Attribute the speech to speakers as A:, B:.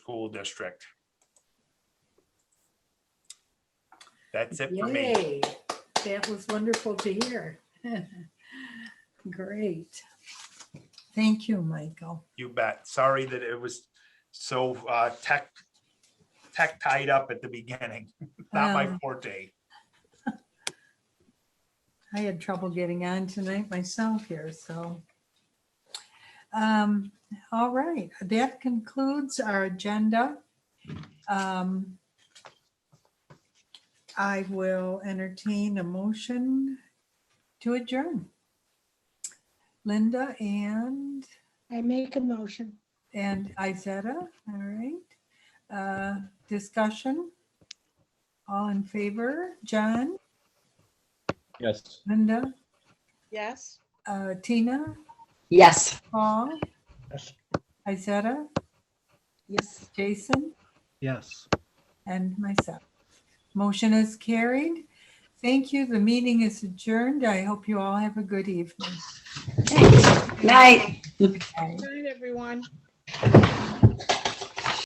A: School District. That's it for me.
B: Yay, that was wonderful to hear. Great. Thank you, Michael.
A: You bet. Sorry that it was so uh, tech, tech tied up at the beginning. Not my
B: Um,
A: forte.
B: I had trouble getting on tonight myself here, so. Um, all right, that concludes our agenda. Um, I will entertain a motion to adjourn. Linda and
C: I make a motion.
B: And Izetta, all right. Uh, Discussion? All in favor? John,
D: Yes.
B: Linda,
C: Yes.
B: uh, Tina,
E: Yes.
B: Paul?
D: Yes.
B: Izetta,
C: Yes.
B: Jason,
D: Yes.
B: and myself. Motion is carried. Thank you. The meeting is adjourned. I hope you all have a good evening.
E: Night.
C: Good night, everyone.